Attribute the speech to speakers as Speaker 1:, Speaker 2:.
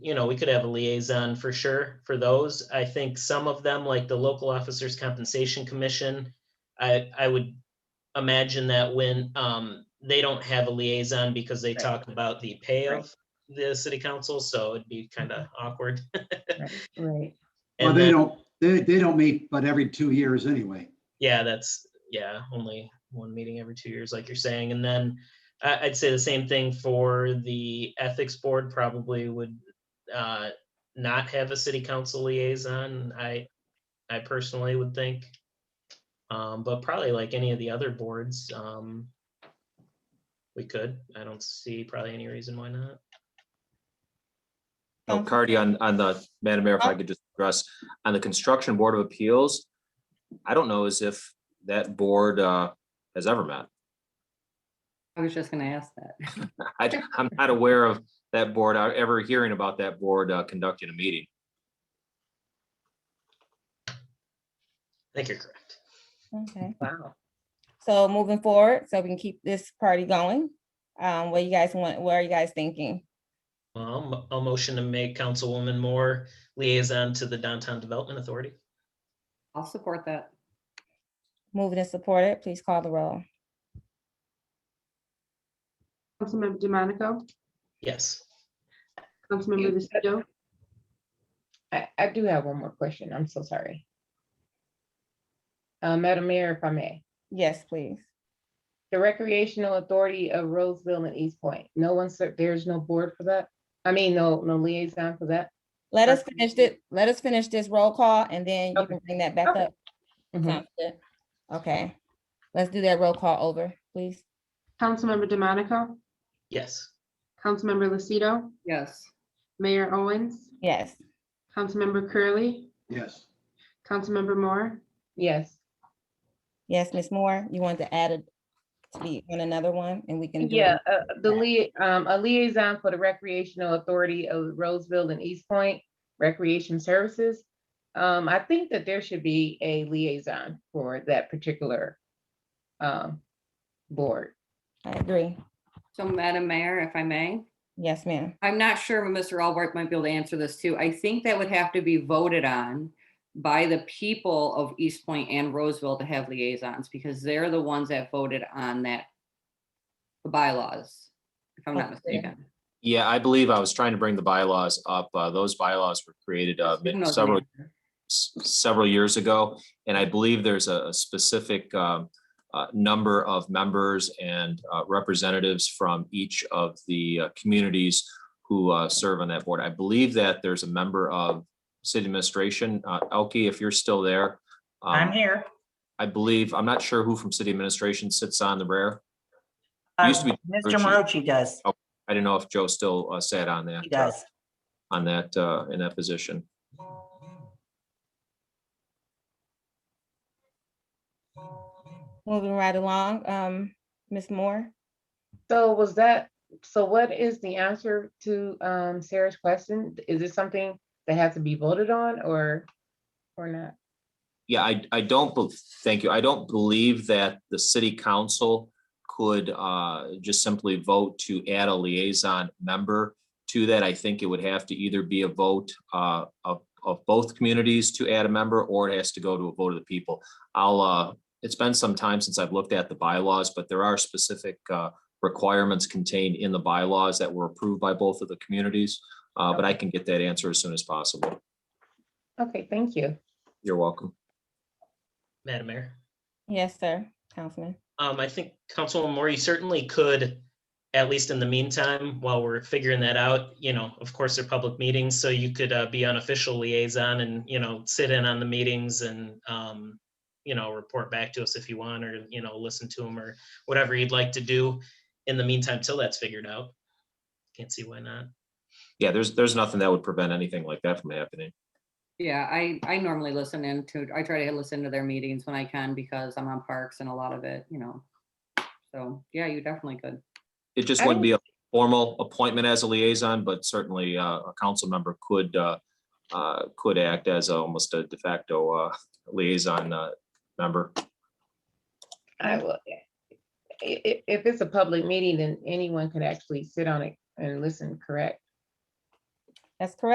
Speaker 1: you know, we could have a liaison for sure for those. I think some of them, like the Local Officers Compensation Commission, I, I would imagine that when, um, they don't have a liaison because they
Speaker 2: Right.
Speaker 1: talk about the pay
Speaker 2: Right. Mm-hmm.
Speaker 1: of the city council, so it'd be kind of awkward.
Speaker 2: Right.
Speaker 3: Well,
Speaker 1: And
Speaker 3: they
Speaker 1: then-
Speaker 3: don't, they, they don't meet but every two years anyway.
Speaker 1: yeah, that's, yeah, only one meeting every two years, like you're saying. And then I, I'd say the same thing for the ethics board probably would uh, not have a city council liaison. I, I personally would think. Um, but probably like any of the other boards, um, we could. I don't see probably any reason why not.
Speaker 4: Oh,
Speaker 2: Um,
Speaker 4: Cardy, on, on the, Madam Mayor, if I
Speaker 2: Oh.
Speaker 4: could just address, on the Construction Board of Appeals, I don't know as if that board uh, has ever met.
Speaker 2: I was just gonna ask that.
Speaker 4: I, I'm not aware of that board, uh, ever hearing about that board uh, conducting a meeting.
Speaker 1: I think you're correct.
Speaker 5: Okay,
Speaker 2: Wow.
Speaker 5: so moving forward, so we can keep this party going. Um, what you guys want, what are you guys thinking?
Speaker 1: Well, I'll mo- I'll motion to make Councilwoman Moore liaison to the Downtown Development Authority.
Speaker 2: I'll support that.
Speaker 5: Moving and supported, please call the roll.
Speaker 6: Councilmember DeMonico,
Speaker 1: Yes.
Speaker 6: Councilmember Lucido,
Speaker 7: I, I do have one more question. I'm so sorry. Uh, Madam Mayor, if I may,
Speaker 5: Yes, please.
Speaker 7: the recreational authority of Roseville and East Point, no one, ser- there's no board for that? I mean, no, no liaison for that?
Speaker 5: Let us
Speaker 7: Okay.
Speaker 5: finish it, let us finish this roll call and then you
Speaker 7: Okay.
Speaker 5: can bring that back
Speaker 7: Okay. Mm-hmm.
Speaker 5: up.
Speaker 7: Mhm.
Speaker 5: Sounds good. Okay, let's do that roll call over, please.
Speaker 6: Councilmember DeMonico,
Speaker 1: Yes.
Speaker 6: Councilmember Lucido,
Speaker 2: Yes.
Speaker 6: Mayor Owens,
Speaker 5: Yes,
Speaker 6: Councilmember Curley,
Speaker 3: Yes,
Speaker 6: Councilmember Moore,
Speaker 7: Yes,
Speaker 5: yes, Ms. Moore, you want to add a, to be on another one and we can. do it?
Speaker 7: yeah, uh, the lia- um, a liaison for the recreational authority of Roseville and East Point Recreation Services. Um, I think that there should be a liaison for that particular um, board.
Speaker 5: I agree.
Speaker 2: So Madam Mayor, if I may,
Speaker 5: Yes, ma'am.
Speaker 2: I'm not sure if Mr. Albright might be able to answer this too. I think that would have to be voted on by the people of East Point and Roseville to have liaisons because they're the ones that voted on that the bylaws, if I'm not
Speaker 5: Okay.
Speaker 2: mistaken.
Speaker 4: Yeah, I believe I was trying to bring the bylaws up. Uh, Those bylaws were created uh,
Speaker 2: Who knows,
Speaker 4: several
Speaker 2: Mayor?
Speaker 4: s- several years ago. And I believe there's a a specific um, uh, number of members and uh, representatives from each of the uh, communities who uh, serve on that board. I believe that there's a member of city administration. Uh, Elke, if you're still there.
Speaker 8: I'm
Speaker 4: um,
Speaker 8: here.
Speaker 4: I believe, I'm not sure who from city administration sits on the rare.
Speaker 8: Uh,
Speaker 4: used to be
Speaker 8: Mr.
Speaker 4: Richie.
Speaker 8: Marucci does.
Speaker 4: I don't know if Joe still uh, sat on that.
Speaker 8: He
Speaker 4: uh,
Speaker 8: does.
Speaker 4: On that, uh, in that position.
Speaker 5: Moving right along, um, Ms. Moore.
Speaker 7: So was that, so what is the answer to um Sarah's question? Is it something that has to be voted on or, or not?
Speaker 4: Yeah, I, I don't, bel- thank you. I don't believe that the city council could uh, just simply vote to add a liaison member to that. I think it would have to either be a vote uh, of, of both communities to add a member, or it has to go to a vote of the people. I'll, uh, it's been some time since I've looked at the bylaws, but there are specific uh, requirements contained in the bylaws that were approved by both of the communities. Uh, But I can get that answer as soon as possible.
Speaker 7: Okay, thank you.
Speaker 4: You're welcome.
Speaker 1: Madam Mayor.
Speaker 5: Yes, sir, Councilman.
Speaker 1: Um, I think Councilwoman Moore, you certainly could, at least in the meantime, while we're figuring that out, you know, of course, they're public meetings, so you could uh, be unofficial liaison and, you know, sit in on the meetings and, um, you know, report back to us if you want, or, you know, listen to them, or whatever you'd like to do in the meantime till that's figured out. Can't see why not.
Speaker 4: Yeah, there's, there's nothing that would prevent anything like that from happening.
Speaker 2: Yeah, I, I normally listen into, I try to listen to their meetings when I can because I'm on parks and a lot of it, you know. So, yeah, you definitely could.
Speaker 4: It just
Speaker 7: I
Speaker 4: wouldn't be a formal appointment as a liaison, but certainly uh, a council member could, uh, uh, could act as almost a de facto uh, liaison uh, member.
Speaker 7: I will. i- i- if it's a public meeting, then anyone can actually sit on it and listen, correct?
Speaker 5: That's correct.